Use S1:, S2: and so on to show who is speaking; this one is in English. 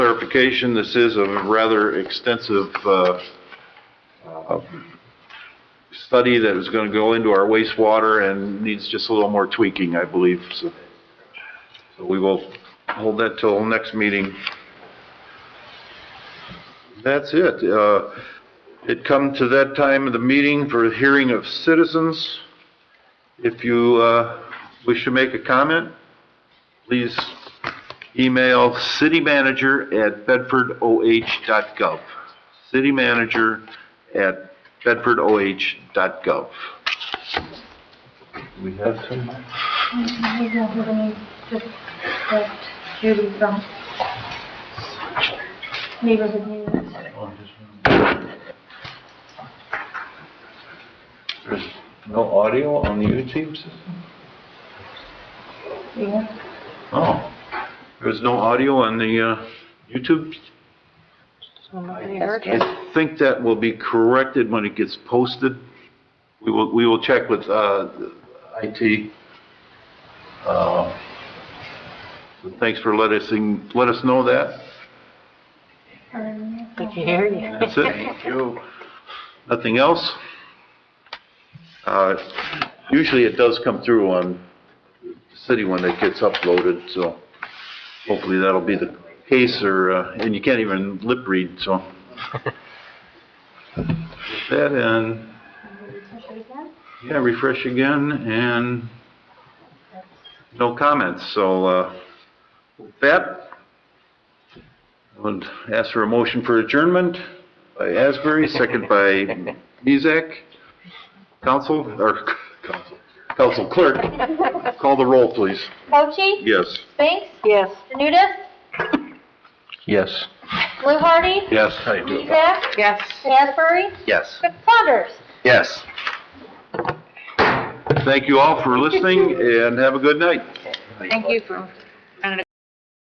S1: clarification, this is a rather extensive uh, uh, study that is going to go into our wastewater and needs just a little more tweaking, I believe, so. So we will hold that till next meeting. That's it. Uh, It come to that time of the meeting for a hearing of citizens. If you uh, wish to make a comment, please email citymanager@bedfordoh.gov. Citymanager@bedfordoh.gov. We have some?
S2: We don't have any, just that Judy from Neighborhood News.
S1: There's no audio on the YouTube system?
S2: Yeah.
S1: Oh, there's no audio on the uh, YouTube? I think that will be corrected when it gets posted. We will, we will check with uh, IT. Uh, so Thanks for letting us, let us know that.
S2: Um,
S3: I can hear you.
S1: That's it. Thank you. Nothing else? Uh, Usually it does come through on the city when it gets uploaded, so hopefully that'll be the case, or, uh, and you can't even lip read, so. With That, and,
S2: refresh it again?
S1: yeah, refresh again, and no comments, so uh, with that, I would ask for a motion for adjournment by Asbury, second by Mezak. Council, or council- council clerk, call the roll, please.
S2: Cochee?
S1: Yes.
S2: Spinks?
S3: Yes.
S2: Janutus?
S1: Yes.
S2: Hardy,
S1: Yes.
S2: Mezak?
S3: Yes.
S2: Asbury?
S1: Yes.
S2: Saunders?
S1: Yes. Thank you all for listening, and have a good night.
S3: Thank you for